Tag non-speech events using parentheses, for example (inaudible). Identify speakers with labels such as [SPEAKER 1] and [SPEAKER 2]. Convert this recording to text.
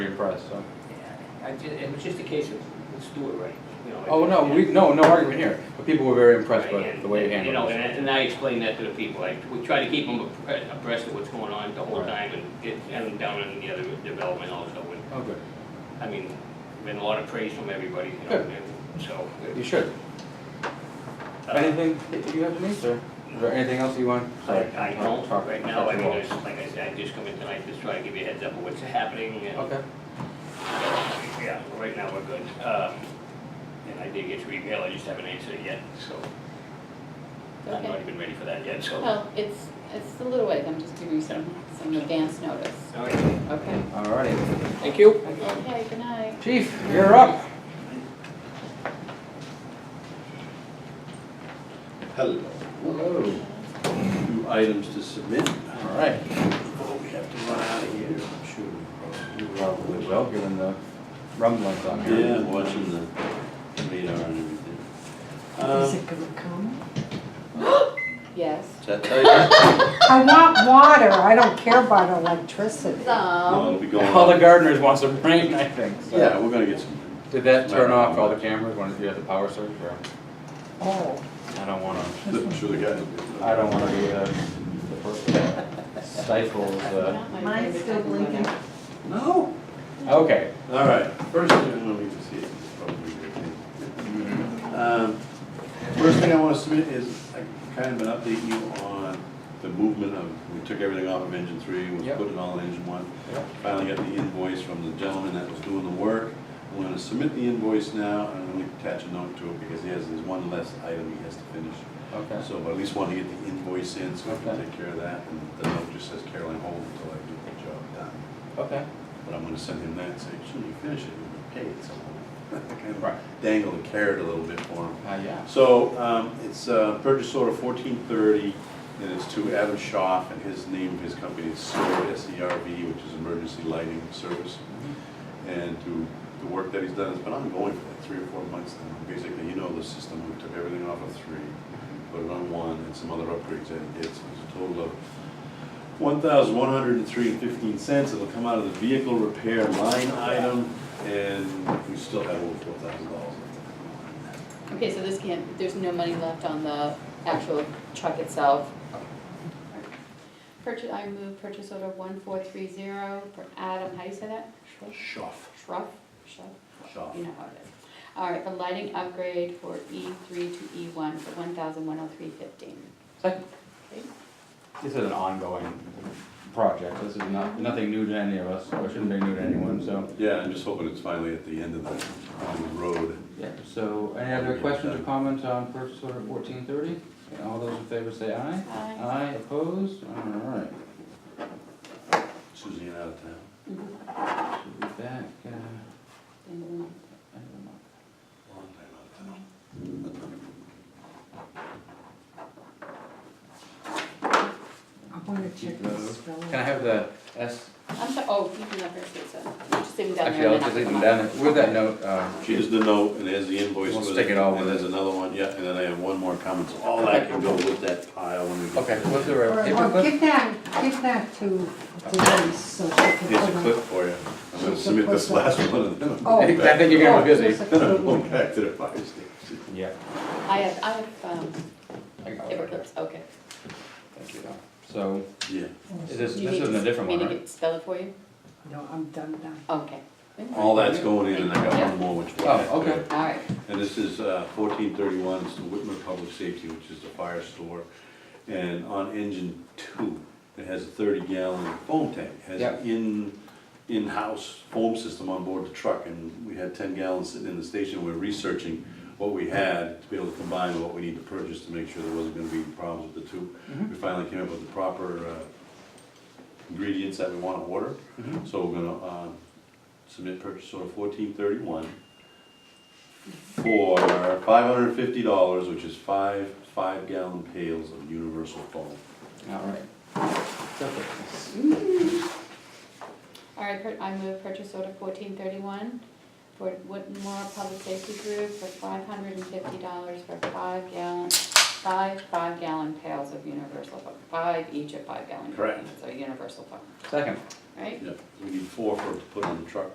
[SPEAKER 1] impressed, so.
[SPEAKER 2] I ju- it was just a case of, let's do it right, you know.
[SPEAKER 1] Oh, no, we, no, no argument here, but people were very impressed with
[SPEAKER 2] And-
[SPEAKER 1] the way you
[SPEAKER 2] and, You know,
[SPEAKER 1] handled
[SPEAKER 2] and
[SPEAKER 1] it.
[SPEAKER 2] I, and I explained that to the people, I, we try to keep them appre- abreast of what's going on the whole
[SPEAKER 1] Right.
[SPEAKER 2] time and get, and them down in the other development also, and,
[SPEAKER 1] Oh, good,
[SPEAKER 2] I mean, been a lot of praise from everybody, you know,
[SPEAKER 1] Good.
[SPEAKER 2] and so.
[SPEAKER 1] you should.
[SPEAKER 2] uh,
[SPEAKER 1] Anything that you have to me, sir? Is there anything else you want?
[SPEAKER 2] I,
[SPEAKER 1] Sorry,
[SPEAKER 2] I
[SPEAKER 1] I'll
[SPEAKER 2] don't,
[SPEAKER 1] talk-
[SPEAKER 2] right
[SPEAKER 1] talk
[SPEAKER 2] now,
[SPEAKER 1] to
[SPEAKER 2] I
[SPEAKER 1] you
[SPEAKER 2] mean,
[SPEAKER 1] all.
[SPEAKER 2] it's, like I said, I just come in tonight, just try to give you a heads up of what's happening and.
[SPEAKER 1] Okay,
[SPEAKER 2] Yeah, right now we're good. Um, And I did get your email, I just haven't answered it yet, so. I'm not
[SPEAKER 3] Okay. Oh.
[SPEAKER 2] even ready for that yet, so.
[SPEAKER 3] Well, it's, it's a little ways, I'm just giving you some, some advance notice.
[SPEAKER 2] All right.
[SPEAKER 3] Okay.
[SPEAKER 1] all righty.
[SPEAKER 2] Thank you.
[SPEAKER 3] Okay, Oh, good night.
[SPEAKER 1] Chief, you're up.
[SPEAKER 4] Hello.
[SPEAKER 1] Hello.
[SPEAKER 4] Two items to submit.
[SPEAKER 1] All right,
[SPEAKER 4] Oh, we have to run out of here. Sure.
[SPEAKER 1] you probably will, given the rumblings on here.
[SPEAKER 4] Yeah, I'm watching the radar and everything.
[SPEAKER 5] Is
[SPEAKER 4] Um,
[SPEAKER 5] it gonna come?
[SPEAKER 3] Yes.
[SPEAKER 4] Is that tight?
[SPEAKER 5] I want water, I don't care about electricity.
[SPEAKER 4] No,
[SPEAKER 3] Some,
[SPEAKER 4] it'll be going
[SPEAKER 1] (laughs) All the
[SPEAKER 4] on.
[SPEAKER 1] gardeners want some rain, I think, so.
[SPEAKER 4] Yeah, we're gonna get some.
[SPEAKER 1] Did that turn off all the cameras when you had the power surge, or?
[SPEAKER 5] Oh,
[SPEAKER 1] I don't wanna,
[SPEAKER 4] I'm sure the guys will be-
[SPEAKER 1] I don't wanna be, uh, the person that stifles, uh,
[SPEAKER 3] not my
[SPEAKER 5] mine's
[SPEAKER 3] favorite
[SPEAKER 5] still
[SPEAKER 3] type of weather.
[SPEAKER 5] blinking.
[SPEAKER 4] No.
[SPEAKER 1] okay.
[SPEAKER 4] All right, first thing, I don't know if you can see it, it's probably your thing. Um, First thing I want to submit is uh, kind of an update you on the movement of, we took everything off of engine three, we
[SPEAKER 1] Yep.
[SPEAKER 4] put it all in engine one.
[SPEAKER 1] Yep.
[SPEAKER 4] Finally got the invoice from the gentleman that was doing the work. I'm gonna submit the invoice now, and I'm gonna attach a note to it, because he has, there's one less item he has to finish.
[SPEAKER 1] Okay.
[SPEAKER 4] So but at least want to get the invoice in, so I can
[SPEAKER 1] Okay.
[SPEAKER 4] take care of that, and the note just says Caroline, hold until I get the job done.
[SPEAKER 1] Okay.
[SPEAKER 4] But I'm gonna send him that and say, should you finish it, you'll pay it somehow. (laughs) Kind of
[SPEAKER 1] Right.
[SPEAKER 4] Dangle the carrot a little bit for him.
[SPEAKER 1] Uh, yeah.
[SPEAKER 4] So, um, it's, uh, purchase order fourteen thirty, and it's to Adam Schaff, and his name, his company is SERV, S-E-R-V, which is Emergency Lighting Service. And to, the work that he's done has been ongoing for like three or four months now. Basically, you know the system, we took everything off of three, put it on one, and some other upgrades that he did, so it's a total of one thousand one hundred and three and fifteen cents, it'll come out of the vehicle repair line item, and we still have over four thousand dollars left.
[SPEAKER 3] Okay, so this can't, there's no money left on the actual truck itself. Purchase, I move purchase order one four three zero for Adam, how do you say that?
[SPEAKER 4] Schaff.
[SPEAKER 3] Shruff, Shruff,
[SPEAKER 4] Schaff.
[SPEAKER 3] you know how it is. All right, the lighting upgrade for E three to E one for one thousand one oh three fifteen.
[SPEAKER 1] Second.
[SPEAKER 3] Okay.
[SPEAKER 1] This is an ongoing project. This is not, nothing new to any of us, or shouldn't be new to anyone, so.
[SPEAKER 4] Yeah, I'm just hoping it's finally at the end of the, on the road.
[SPEAKER 1] Yeah, so any other questions or comments on purchase order fourteen thirty? All those in favor say aye.
[SPEAKER 3] Aye.
[SPEAKER 1] Aye, opposed? All right.
[SPEAKER 4] Susie and out of town.
[SPEAKER 3] Mhm.
[SPEAKER 1] Should be back, uh,
[SPEAKER 3] End of the month.
[SPEAKER 1] end of the month.
[SPEAKER 4] Long time out of town.
[SPEAKER 5] I wanna check the spelling.
[SPEAKER 1] Can I have the S,
[SPEAKER 3] I'm sorry, oh, you can have her say so. Just leave them down
[SPEAKER 1] actually,
[SPEAKER 3] there.
[SPEAKER 1] I'll
[SPEAKER 3] and
[SPEAKER 1] just
[SPEAKER 3] then
[SPEAKER 1] leave them
[SPEAKER 3] I'll
[SPEAKER 1] down
[SPEAKER 3] come
[SPEAKER 1] there. With that note, uh,
[SPEAKER 4] Here's the note, and there's the invoice.
[SPEAKER 1] We'll
[SPEAKER 4] with
[SPEAKER 1] stick it all with
[SPEAKER 4] And there's
[SPEAKER 1] it.
[SPEAKER 4] another one, yeah, and then I have one more comment, so all that can go with that pile when we get.
[SPEAKER 1] okay,
[SPEAKER 4] there.
[SPEAKER 1] was there
[SPEAKER 5] Or,
[SPEAKER 1] a paper
[SPEAKER 5] or
[SPEAKER 1] clip?
[SPEAKER 5] give that, give that to, to Denise, so she can
[SPEAKER 4] Here's
[SPEAKER 5] put
[SPEAKER 4] a
[SPEAKER 5] on-
[SPEAKER 4] clip for you. I'm gonna submit this last one, and then I'm
[SPEAKER 5] Oh.
[SPEAKER 4] going
[SPEAKER 1] I
[SPEAKER 4] (laughs) back.
[SPEAKER 1] think you're gonna be
[SPEAKER 5] Oh,
[SPEAKER 1] busy.
[SPEAKER 5] there's a
[SPEAKER 4] Then
[SPEAKER 5] good
[SPEAKER 4] I'm
[SPEAKER 5] one.
[SPEAKER 4] going back to the fire station.
[SPEAKER 1] Yeah.
[SPEAKER 3] back. I have, I have, um,
[SPEAKER 1] I got it
[SPEAKER 3] paper
[SPEAKER 1] right here.
[SPEAKER 3] clips, okay.
[SPEAKER 1] Thank you. So,
[SPEAKER 4] Yeah.
[SPEAKER 1] is this,
[SPEAKER 3] Do you
[SPEAKER 1] this
[SPEAKER 3] need
[SPEAKER 1] isn't a
[SPEAKER 3] to-
[SPEAKER 1] different
[SPEAKER 3] me
[SPEAKER 1] one,
[SPEAKER 3] to
[SPEAKER 1] right?
[SPEAKER 3] get- Spell it for you?
[SPEAKER 5] No, I'm done now.
[SPEAKER 3] Okay.
[SPEAKER 4] All that's going in, and I got one more, which. we'll
[SPEAKER 1] Oh,
[SPEAKER 4] get to.
[SPEAKER 1] okay.
[SPEAKER 3] All right.
[SPEAKER 4] And this is uh, fourteen thirty-one, it's the Whitman Public Safety, which is the fire store. And on engine two, it has a thirty gallon foam tank, It has
[SPEAKER 1] Yeah.
[SPEAKER 4] an in, in-house foam system on board the truck. And we had ten gallons sitting in the station, we're researching what we had to be able to combine with what we need to purchase to make sure there wasn't gonna be any problems with the two. We finally came up with the proper uh, ingredients that we wanna order. So we're gonna uh, submit purchase order fourteen thirty-one for five hundred and fifty dollars, which is five five gallon pails of universal foam.
[SPEAKER 1] Mm-hmm. All right.
[SPEAKER 3] All right, pur- I move purchase order fourteen thirty-one for Whitmore Public Safety Group for five hundred and fifty dollars for five gallon, five five gallon pails of universal, foam. five each of five gallon
[SPEAKER 4] Correct.
[SPEAKER 3] containers of universal foam,
[SPEAKER 1] Second.
[SPEAKER 3] right?
[SPEAKER 4] Yep, we need four for, to put on the truck.